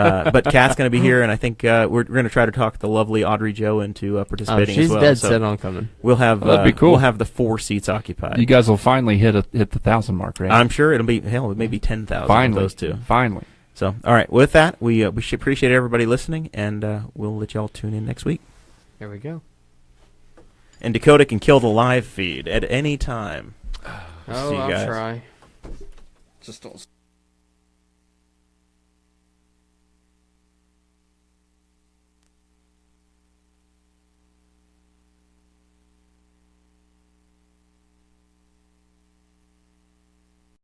Uh, but Kat's going to be here, and I think uh, we're, we're going to try to talk the lovely Audrey Joe into uh, Oh, participating she's as well. dead so set on coming. We'll have That'd be uh, cool. We'll have the four seats occupied. You guys will finally hit a, hit the thousand mark, right? I'm sure it'll be hell. It may be ten thousand. finally Those two. Finally. So, all right. With that, we uh, we should appreciate everybody listening, and uh, we'll let y'all tune in next week. There we go. And Dakota can kill the live feed at any time. Oh, See you I'll guys. try. Just don't